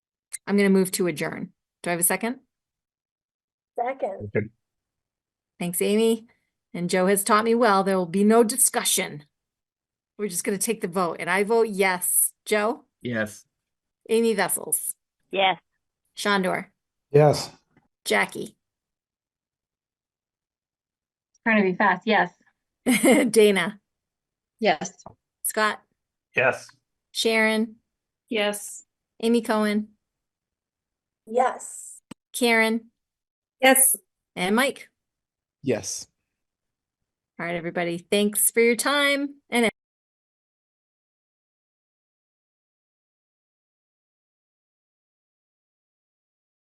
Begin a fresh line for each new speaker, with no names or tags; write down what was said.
I'm gonna move to adjourn. Do I have a second?
Second.
Okay.
Thanks, Amy. And Joe has taught me well, there will be no discussion. We're just gonna take the vote and I vote yes. Joe,
Yes.
Amy Vessels,
Yes.
Shondor,
Yes.
Jackie,
Trying to be fast, yes.
Dana,
Yes.
Scott,
Yes.
Sharon,
Yes.
Amy Cohen,
Yes.
Karen,
Yes.
and Mike.
Yes.
All right, everybody, thanks for your time and